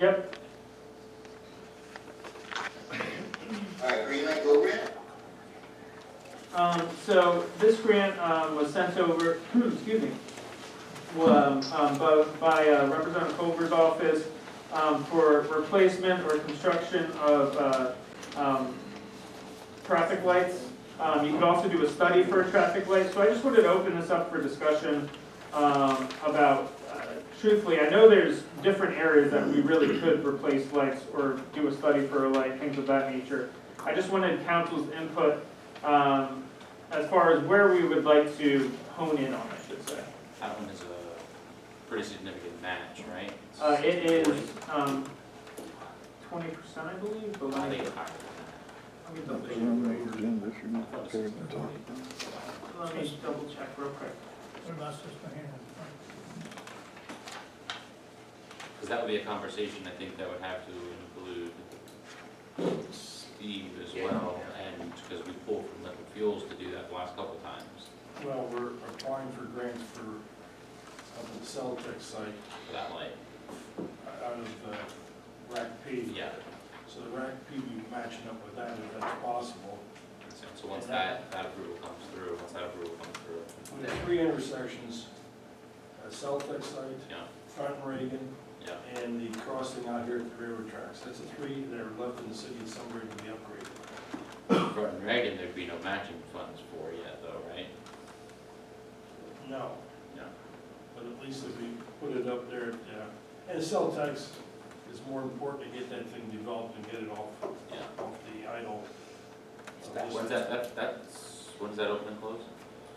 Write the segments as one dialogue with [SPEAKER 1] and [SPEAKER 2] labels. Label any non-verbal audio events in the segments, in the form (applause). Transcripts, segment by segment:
[SPEAKER 1] Yep,
[SPEAKER 2] All right, Green Lake Go Grant?
[SPEAKER 1] um, so this grant, um, was sent over, (clears throat) excuse me, um, um, by, by uh, Representative Colbert's office, um, for replacement or construction of, uh, um, traffic lights. Um, you could also do a study for a traffic light, so I just wanted to open this up for discussion, um, about, uh, truthfully, I know there's different areas that we really could replace lights or do a study for a light, things of that nature. I just wanted council's input, um, as far as where we would like to hone in on, I should say.
[SPEAKER 3] That one is a pretty significant match, right?
[SPEAKER 1] Uh, it is, um, twenty percent, I believe, but
[SPEAKER 3] I
[SPEAKER 1] let
[SPEAKER 3] think
[SPEAKER 1] me,
[SPEAKER 3] it's higher than that. I thought it was 40.
[SPEAKER 1] let me double check real quick.
[SPEAKER 4] What about Sister Hannah?
[SPEAKER 3] Because that would be a conversation, I think, that would have to include Steve as well, and, because we pulled from liquid fuels to do that the last couple times
[SPEAKER 5] Well, we're applying for grants for, up at the Celtech site,
[SPEAKER 3] for that light.
[SPEAKER 5] out of the rack P.
[SPEAKER 3] Yeah,
[SPEAKER 5] So the rack P, we matching up with that if that's possible.
[SPEAKER 3] makes sense. so once that, that approval comes through, once that approval comes through,
[SPEAKER 5] We have three intersections, at Celtech site,
[SPEAKER 3] yeah,
[SPEAKER 5] Front Reagan,
[SPEAKER 3] yeah.
[SPEAKER 5] and the crossing out here at the railroad tracks. That's the three that are left in the city somewhere to be upgraded.
[SPEAKER 3] For Reagan, there'd be no matching funds for yet, though, right?
[SPEAKER 5] No,
[SPEAKER 3] Yeah.
[SPEAKER 5] but at least if we put it up there, yeah. And Celtech's is more important to get that thing developed and get it off
[SPEAKER 3] Yeah.
[SPEAKER 5] off the idle.
[SPEAKER 3] When's that, that, that's, when's that open and close?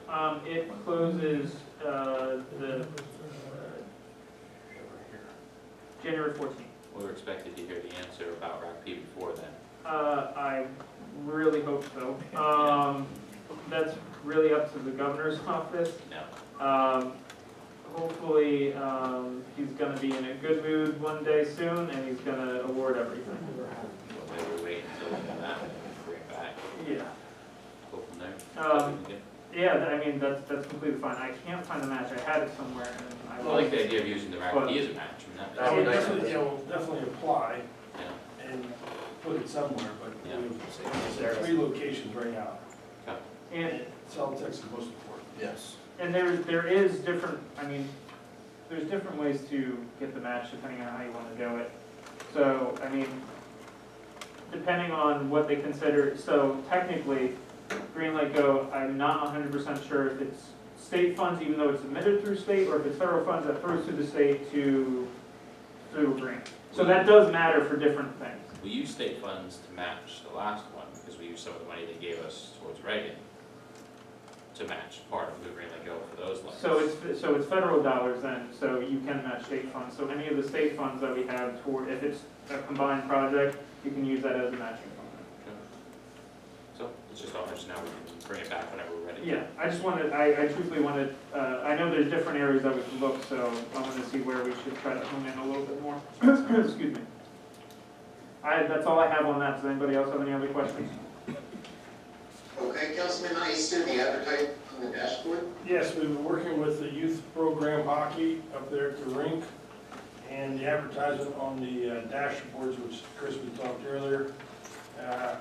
[SPEAKER 1] Um, it closes, uh, the, uh, January fourteenth.
[SPEAKER 3] We were expected to hear the answer about RACP before then.
[SPEAKER 1] Uh, I really hope so. Um, that's really up to the governor's (laughs) office.
[SPEAKER 3] No,
[SPEAKER 1] Um, hopefully, um, he's gonna be in a good mood one day soon and he's gonna award everything.
[SPEAKER 3] but maybe we wait until we have that and then bring it back,
[SPEAKER 1] Yeah.
[SPEAKER 3] go from there.
[SPEAKER 1] Um, Yeah, th- I mean, that's, that's completely fine. I can't find the match. I had it somewhere and I.
[SPEAKER 3] I
[SPEAKER 1] lost
[SPEAKER 3] like
[SPEAKER 1] it.
[SPEAKER 3] the idea of using the RACP as a match, I mean, that-
[SPEAKER 5] I
[SPEAKER 3] that's
[SPEAKER 5] would
[SPEAKER 3] nice.
[SPEAKER 5] definitely, you know, definitely apply
[SPEAKER 3] Yeah,
[SPEAKER 5] and put it somewhere, but we
[SPEAKER 3] Yeah.
[SPEAKER 5] have there are three locations right now.
[SPEAKER 1] And,
[SPEAKER 5] Celtech's is most important.
[SPEAKER 2] Yes.
[SPEAKER 1] and there, there is different, I mean, there's different ways to get the match depending on how you wanna do it. So, I mean, depending on what they consider, so technically, Green Light Go, I'm not hundred percent sure if it's state funds, even though it's admitted through state, or if it's federal funds that flows through the state to, through a grant. So that does matter for different things.
[SPEAKER 3] we used state funds to match the last one, because we used some of the money they gave us towards Reagan to match part of the Green Lake Go for those lights.
[SPEAKER 1] So it's, so it's federal dollars then, so you can match state funds, so any of the state funds that we have toward, if it's a combined project, you can use that as a matching fund.
[SPEAKER 3] So it's just on, just now we can bring it back whenever we're ready.
[SPEAKER 1] Yeah, I just wanted, I, I truthfully wanted, uh, I know there's different areas that we can look, so I wanted to see where we should try to hone in a little bit more, (coughs) excuse me. I, that's all I have on that, does anybody else have any other questions?
[SPEAKER 2] Okay, Councilman Easton, the advertising on the dashboard?
[SPEAKER 5] Yes, we've been working with the youth program hockey up there at the rink, and the advertisement on the uh, dashboards, which Chris, we talked earlier. Uh,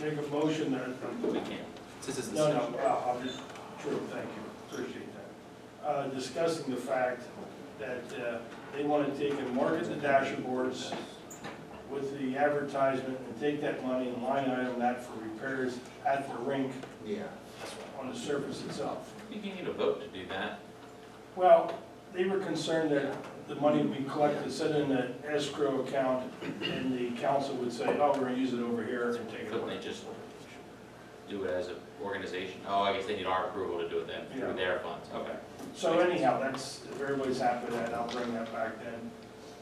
[SPEAKER 5] Make a motion that,
[SPEAKER 3] We can, this is the
[SPEAKER 5] No,
[SPEAKER 3] stuff.
[SPEAKER 5] no, uh, I'm just, true, thank you, appreciate that. Uh, Discussing the fact that uh, they want to take and market the dashboards with the advertisement and take that money and line item that for repairs at the rink
[SPEAKER 2] Yeah.
[SPEAKER 5] on the surface itself.
[SPEAKER 3] I think you need a vote to do that.
[SPEAKER 5] Well, they were concerned that the money we collected set in an escrow account and the council would say, oh, we're going to use it over here and take it
[SPEAKER 3] Couldn't they
[SPEAKER 5] away.
[SPEAKER 3] just do it as an organization? Oh, I guess they need our approval to do it then,
[SPEAKER 5] Yeah.
[SPEAKER 3] through their funds, okay.
[SPEAKER 5] So anyhow, that's, if everybody's happy with that, I'll bring that back then.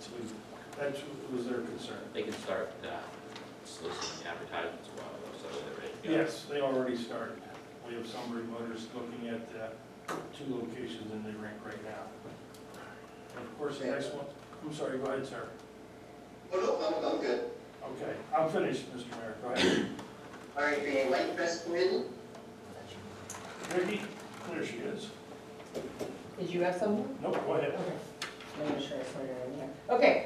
[SPEAKER 5] So we- That was their concern.
[SPEAKER 3] They can start uh, soliciting advertisements while they're, so they're ready to go.
[SPEAKER 5] Yes, they already started. We have some voters looking at uh, two locations in the rink right now. And of course, the next one, I'm sorry, go ahead, sir.
[SPEAKER 2] Oh, no, I'm, I'm good.
[SPEAKER 5] Okay, I'm finished, Mr. Mayor, go ahead.
[SPEAKER 2] All right, the Light Fest Committee?
[SPEAKER 5] Ricky, there she is.
[SPEAKER 6] Did you have someone?
[SPEAKER 5] Nope, go ahead.
[SPEAKER 6] Okay. I'm not sure I saw your name there. Okay,